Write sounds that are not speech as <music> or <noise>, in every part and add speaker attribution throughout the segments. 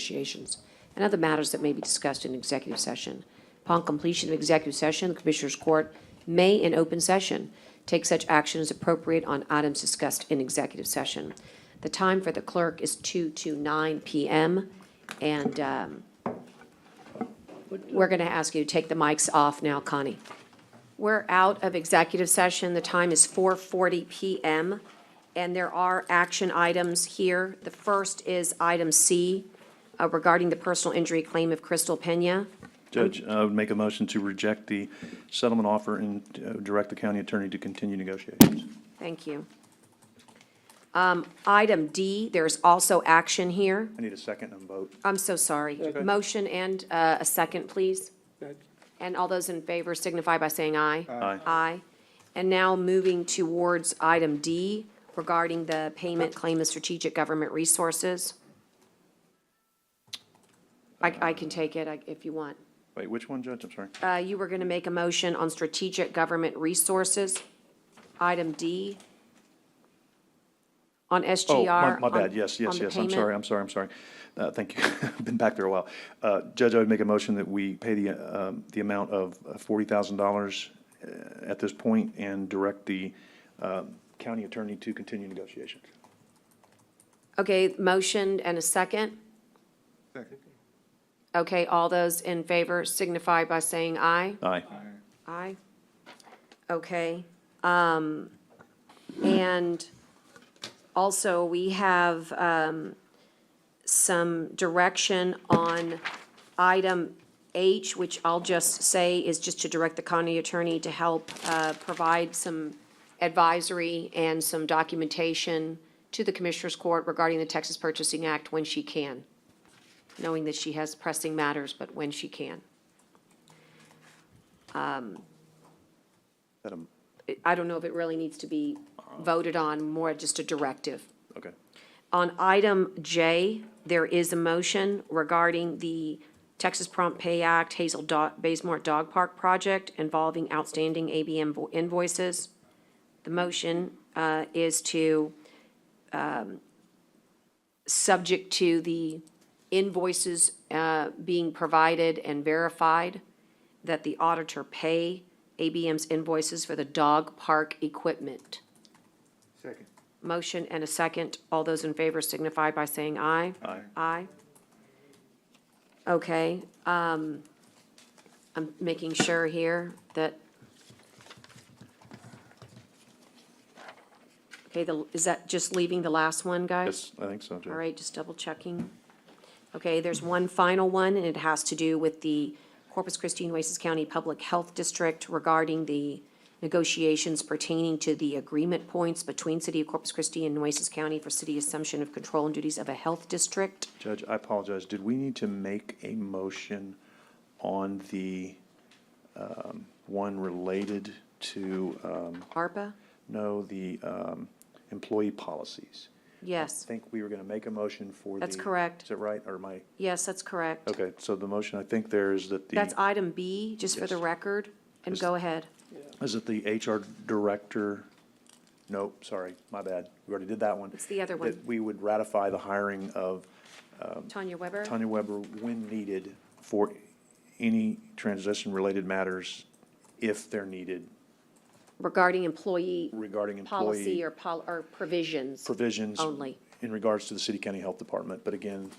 Speaker 1: negotiations, and other matters that may be discussed in executive session. Upon completion of executive session, the Commissioners' Court may, in open session, take such action as appropriate on items discussed in executive session. The time for the clerk is 2 to 9 PM, and um, we're going to ask you to take the mics off now, Connie. We're out of executive session. The time is 4:40 PM, and there are action items here. The first is item C uh, regarding the personal injury claim of Crystal Pena.
Speaker 2: Judge, I would make a motion to reject the settlement offer and uh, direct the county attorney to continue negotiations.
Speaker 1: Thank you. Um, Item D, there's also action here.
Speaker 2: I need a second and vote.
Speaker 1: I'm so sorry. Motion and uh, a second, please. And all those in favor signify by saying aye.
Speaker 2: Aye.
Speaker 1: Aye. And now moving towards item D regarding the payment claim of strategic government resources. I, I can take it I- if you want.
Speaker 2: Wait, which one, Judge? I'm sorry.
Speaker 1: Uh, You were going to make a motion on strategic government resources, item D, on
Speaker 2: Oh,
Speaker 1: SGR.
Speaker 2: my- my
Speaker 1: on-
Speaker 2: bad, yes,
Speaker 1: on
Speaker 2: yes,
Speaker 1: the
Speaker 2: yes, I'm
Speaker 1: payment.
Speaker 2: sorry, I'm sorry, I'm sorry. Uh, Thank you, <laughs> I've been back there a while. Uh, Judge, I would make a motion that we pay the, uh, um, the amount of forty thousand dollars uh, at this point and direct the um, county attorney to continue negotiations.
Speaker 1: Okay, motion and a second?
Speaker 3: Second.
Speaker 1: Okay, all those in favor signify by saying aye.
Speaker 2: Aye.
Speaker 1: Aye. Okay. Um, and also, we have, um, some direction on item H, which I'll just say is just to direct the county attorney to help, uh, provide some advisory and some documentation to the Commissioners Court regarding the Texas Purchasing Act when she can, knowing that she has pressing matters, but when she can.
Speaker 2: That, um,
Speaker 1: it- I don't know if it really needs to be voted on, more just a directive.
Speaker 2: Okay.
Speaker 1: On item J, there is a motion regarding the Texas Prompt Pay Act Hazel Do- Baysmore Dog Park Project involving outstanding ABM vo- invoices. The motion uh, is to, um, subject to the invoices uh, being provided and verified, that the auditor pay ABM's invoices for the dog park equipment.
Speaker 3: Second.
Speaker 1: Motion and a second. All those in favor signify by saying aye.
Speaker 2: Aye.
Speaker 1: Aye. Okay, um, I'm making sure here that. Okay, the, is that just leaving the last one, guys?
Speaker 2: Yes, I think so, Judge.
Speaker 1: All right, just double checking. Okay, there's one final one, and it has to do with the Corpus Christi and Oasis County Public Health District regarding the negotiations pertaining to the agreement points between City of Corpus Christi and Oasis County for city assumption of control and duties of a health district.
Speaker 2: Judge, I apologize. Did we need to make a motion on the um, one related to, um,
Speaker 1: ARPA?
Speaker 2: no, the um, employee policies? I
Speaker 1: Yes,
Speaker 2: think we were going to make a motion for the.
Speaker 1: That's correct.
Speaker 2: Is it right? Or am I,
Speaker 1: yes, that's correct.
Speaker 2: okay, so the motion, I think there is that
Speaker 1: That's
Speaker 2: the,
Speaker 1: item B, just for the
Speaker 2: Yes.
Speaker 1: record, and
Speaker 2: Just-
Speaker 1: go ahead.
Speaker 2: is it the HR director? Nope, sorry, my bad. We already did that one.
Speaker 1: It's the other
Speaker 2: That
Speaker 1: one.
Speaker 2: we would ratify the hiring of
Speaker 1: Tanya Weber?
Speaker 2: Tanya Weber when needed for any transition-related matters, if they're needed
Speaker 1: Regarding employee
Speaker 2: regarding
Speaker 1: policy
Speaker 2: employee
Speaker 1: or pol, or provisions.
Speaker 2: provisions.
Speaker 1: only.
Speaker 2: In regards to the city county health department, but again,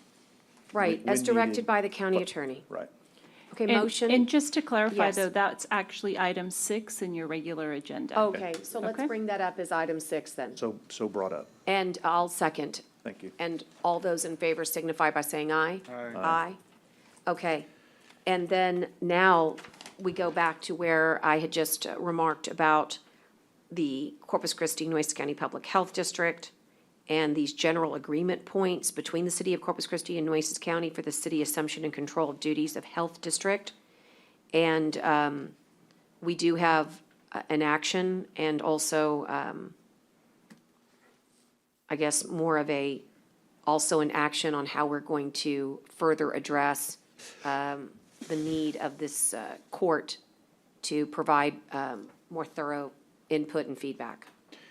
Speaker 1: Right,
Speaker 2: when
Speaker 1: as directed
Speaker 2: needed.
Speaker 1: by the county attorney.
Speaker 2: right.
Speaker 1: Okay,
Speaker 4: And-
Speaker 1: motion?
Speaker 4: And just to clarify,
Speaker 1: Yes.
Speaker 4: though, that's actually item six in your regular agenda.
Speaker 1: Okay, so let's
Speaker 4: Okay.
Speaker 1: bring that up as item six then.
Speaker 2: So, so brought up.
Speaker 1: And I'll second.
Speaker 2: Thank you.
Speaker 1: And all those in favor signify by saying aye.
Speaker 3: Aye.
Speaker 1: Aye. Okay. And then now we go back to where I had just remarked about the Corpus Christi Nueces County Public Health District and these general agreement points between the city of Corpus Christi and Nueces County for the city assumption and control of duties of health district. And um, we do have uh, an action and also, um, I guess, more of a, also an action on how we're going to further address um, the need of this uh, court to provide um, more thorough input and feedback.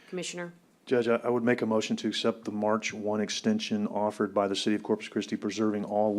Speaker 1: Commissioner?
Speaker 2: Judge, I I would make a motion to accept the March 1 extension offered by the City of Corpus Christi, preserving all